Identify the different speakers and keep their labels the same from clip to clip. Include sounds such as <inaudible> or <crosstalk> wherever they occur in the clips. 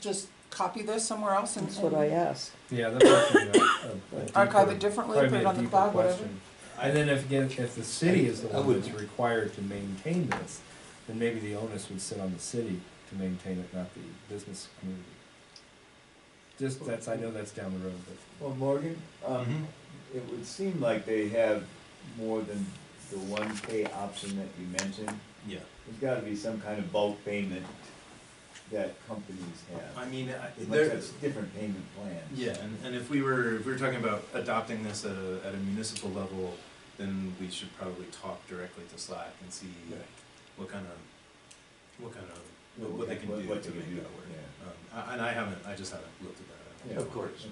Speaker 1: just copy this somewhere else and
Speaker 2: That's what I asked.
Speaker 3: Yeah, that's actually a- a- a
Speaker 1: archive
Speaker 3: deeper-
Speaker 1: it differently,
Speaker 3: probably
Speaker 1: put it
Speaker 3: a
Speaker 1: on the
Speaker 3: deeper
Speaker 1: cloud, whatever?
Speaker 3: question. And then if, again, if the city is the
Speaker 4: I
Speaker 3: one
Speaker 4: would-
Speaker 3: that's required to maintain this, then maybe the onus would sit on the city to maintain it, not the business community. Just, that's, I know that's down the road, but
Speaker 5: Well, Morgan, um,
Speaker 4: Mm-hmm.
Speaker 5: it would seem like they have more than the one pay option that you mentioned.
Speaker 4: Yeah.
Speaker 5: There's gotta be some kind of bulk payment that companies
Speaker 4: I
Speaker 5: have,
Speaker 4: mean, I-
Speaker 5: unless
Speaker 4: there,
Speaker 5: that's different payment plans.
Speaker 4: yeah, and, and if we were, if we were talking about adopting this at a, at a municipal level, then we should probably talk directly to Slack and see what kind of, what kind of, what, what they can
Speaker 5: What-
Speaker 4: do
Speaker 5: what
Speaker 4: to
Speaker 5: they
Speaker 4: make
Speaker 5: can
Speaker 4: that
Speaker 5: do,
Speaker 4: work.
Speaker 5: yeah.
Speaker 4: Um, I- and I haven't, I just haven't looked at that.
Speaker 5: Yeah,
Speaker 4: I
Speaker 5: of
Speaker 4: don't know.
Speaker 5: course.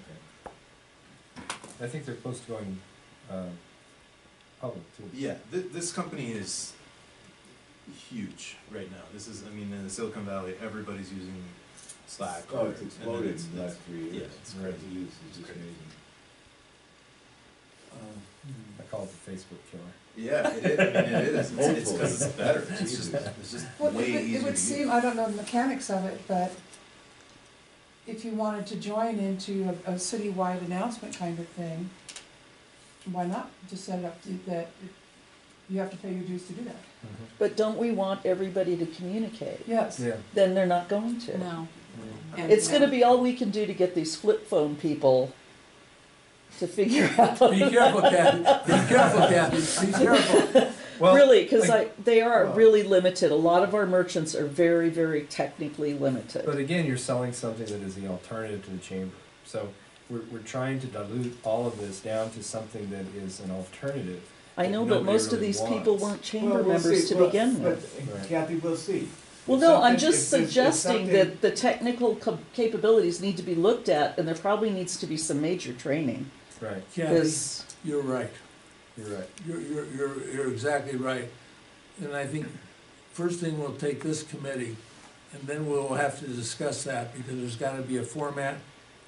Speaker 3: I think they're close to going, um, public too.
Speaker 4: Yeah, th- this company is huge right now. This is, I mean, in Silicon Valley, everybody's using Slack.
Speaker 5: Oh,
Speaker 4: or-
Speaker 5: it's
Speaker 4: and
Speaker 5: exploded
Speaker 4: it's-
Speaker 5: in the last three
Speaker 4: yeah,
Speaker 5: years.
Speaker 4: it's
Speaker 5: The
Speaker 4: crazy.
Speaker 5: use is
Speaker 4: It's
Speaker 5: just
Speaker 4: crazy.
Speaker 5: amazing. Um,
Speaker 3: I call it the Facebook killer.
Speaker 4: Yeah, it is. I mean, it is. It's- It's because it's
Speaker 5: Hopefully.
Speaker 4: better. It's just,
Speaker 5: Jesus.
Speaker 4: it's just
Speaker 1: Well,
Speaker 4: way
Speaker 1: it would,
Speaker 4: easier
Speaker 1: it would
Speaker 4: to
Speaker 1: seem,
Speaker 4: use.
Speaker 1: I don't know the mechanics of it, but if you wanted to join into a, a citywide announcement kind of thing, why not just set it up to- that you have to pay your dues to do that?
Speaker 2: But don't we want everybody to communicate?
Speaker 6: Mm-hmm.
Speaker 1: Yes.
Speaker 3: Yeah.
Speaker 2: Then they're not going to.
Speaker 7: No. And
Speaker 2: It's
Speaker 7: no.
Speaker 2: gonna be all we can do to get these flip phone people to figure out,
Speaker 6: Be careful, Kathy. Be careful, Kathy. Be careful.
Speaker 3: Well,
Speaker 2: really, cause
Speaker 3: I-
Speaker 2: I, they are
Speaker 5: Well-
Speaker 2: really limited. A lot of our merchants are very, very technically
Speaker 3: But
Speaker 2: limited.
Speaker 3: again, you're selling something that is the alternative to the chamber. So we're, we're trying to dilute all of this down to something that is an alternative.
Speaker 2: I know, but
Speaker 3: nobody
Speaker 2: most of
Speaker 3: really
Speaker 2: these people
Speaker 3: wants.
Speaker 2: weren't chamber
Speaker 5: Well, we'll
Speaker 2: members
Speaker 5: see.
Speaker 2: to
Speaker 5: Well,
Speaker 2: begin with.
Speaker 5: but, uh,
Speaker 3: Right.
Speaker 5: Kathy, we'll see.
Speaker 2: Well,
Speaker 5: If
Speaker 2: no,
Speaker 5: something-
Speaker 2: I'm just
Speaker 5: if there's- if
Speaker 2: suggesting
Speaker 5: something-
Speaker 2: that the technical cap- capabilities need to be looked at, and there probably needs to be some major training.
Speaker 3: Right,
Speaker 6: Kathy,
Speaker 2: Because,
Speaker 6: you're right.
Speaker 3: you're right.
Speaker 6: You're, you're, you're, you're exactly right. And I think first thing we'll take this committee, and then we'll have to discuss that, because there's gotta be a format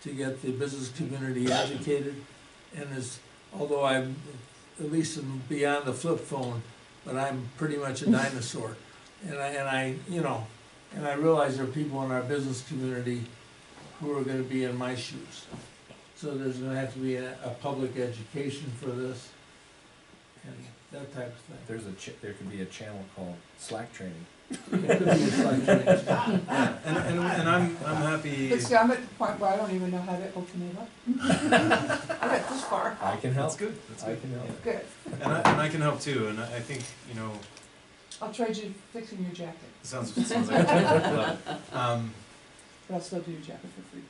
Speaker 6: to get the business community educated. And as, although I'm, at least I'm beyond the flip phone, but I'm pretty much a dinosaur. And I, and I, you know, and I realize there are people in our business community who are gonna be in my shoes. So there's gonna have to be a, a public education for this and that type of
Speaker 3: There's a, ch- there could be a channel called Slack training.
Speaker 6: thing. It could be a slight change.
Speaker 4: Yeah, and, and, and I'm, I'm happy.
Speaker 1: But see, I'm at the point where I don't even know how to open it up. <laughs> I got this far.
Speaker 3: I can
Speaker 4: That's
Speaker 3: help.
Speaker 4: good. That's
Speaker 3: I
Speaker 4: good.
Speaker 3: can help.
Speaker 4: Yeah.
Speaker 1: Good.
Speaker 4: And I, and I can help too. And I, I think, you know,
Speaker 1: I'll trade you fixing your jacket,
Speaker 4: it sounds, it sounds like. <laughs> a job. Um,
Speaker 1: but I'll still do your jacket for free.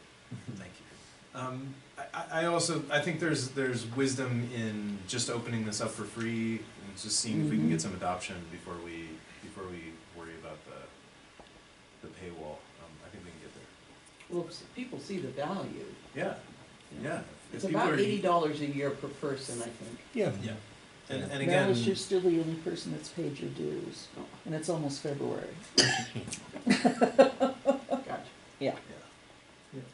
Speaker 4: Thank you. Um, I- I, I also, I think there's, there's wisdom in just opening this up for free and just seeing if we can
Speaker 1: Mm-hmm.
Speaker 4: get some adoption before we, before we worry about the, the paywall. Um, I think we can get
Speaker 8: Well, s- people see the value.
Speaker 4: there. Yeah, yeah. If
Speaker 8: It's
Speaker 4: people
Speaker 8: about
Speaker 4: are-
Speaker 8: eighty dollars a year per person, I think.
Speaker 2: yeah,
Speaker 4: Yeah. And, and again.
Speaker 2: Alice, you're still the only person that's paid your dues, and it's almost February.
Speaker 8: Gotcha.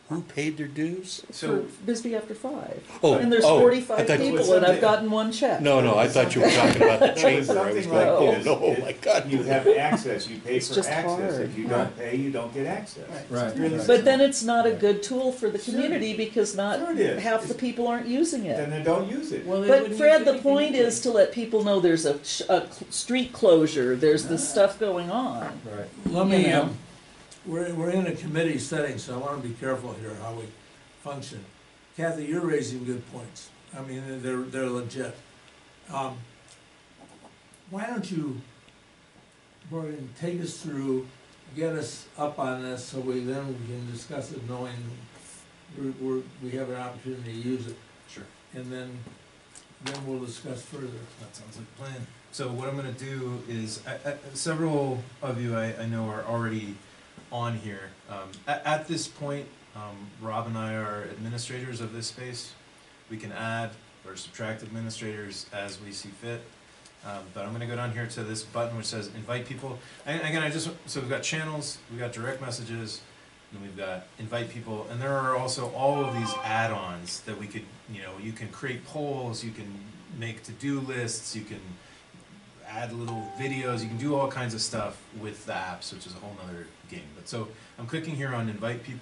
Speaker 9: Who paid their dues?
Speaker 2: For
Speaker 4: So,
Speaker 2: Bisbee after five.
Speaker 9: Oh,
Speaker 2: And there's
Speaker 9: oh, I
Speaker 2: forty-five
Speaker 9: thought you-
Speaker 2: people, and I've gotten one check.
Speaker 9: Oh, No, no, I thought you were talking about the chamber. I was
Speaker 5: Something like
Speaker 9: like, oh
Speaker 5: this.
Speaker 9: no,
Speaker 5: If
Speaker 9: my God.
Speaker 5: You have access, you pay
Speaker 2: It's
Speaker 5: for
Speaker 2: just
Speaker 5: access,
Speaker 2: hard.
Speaker 5: if you don't pay, you don't get access.
Speaker 3: Right.
Speaker 5: Really
Speaker 3: right.
Speaker 2: But then it's not a good tool for the community, because
Speaker 5: Sure
Speaker 2: not,
Speaker 5: it is.
Speaker 2: half the people aren't using it.
Speaker 5: Then they don't use it.
Speaker 8: Well, they
Speaker 2: But
Speaker 8: wouldn't
Speaker 2: Fred,
Speaker 8: use
Speaker 2: the
Speaker 8: anything
Speaker 2: point
Speaker 8: anyway.
Speaker 2: is to let people know there's a, sh- a cl- street closure, there's this
Speaker 8: Ah.
Speaker 2: stuff going on.
Speaker 3: Right.
Speaker 6: Let me,
Speaker 2: You know.
Speaker 6: um, we're, we're in a committee setting, so I wanna be careful here how we function. Kathy, you're raising good points. I mean, they're, they're legit. Um, Why don't you, Morgan, take us through, get us up on this so we then we can discuss it knowing we're, we're, we have an opportunity to use it.
Speaker 4: Sure.
Speaker 6: And then, then we'll discuss further.
Speaker 4: That sounds like a plan. So what I'm gonna do is, I, I, several of you I, I know are already on here. Um, at, at this point, um, Rob and I are administrators of this space. We can add or subtract administrators as we see fit. Um, but I'm gonna go down here to this button which says invite people. And again, I just, so we've got channels, we've got direct messages, and we've got invite people, and there are also all of these add-ons that we could, you know, you can create polls, you can make to-do lists, you can add little videos, you can do all kinds of stuff with the apps, which is a whole nother game. But so I'm clicking here on invite people.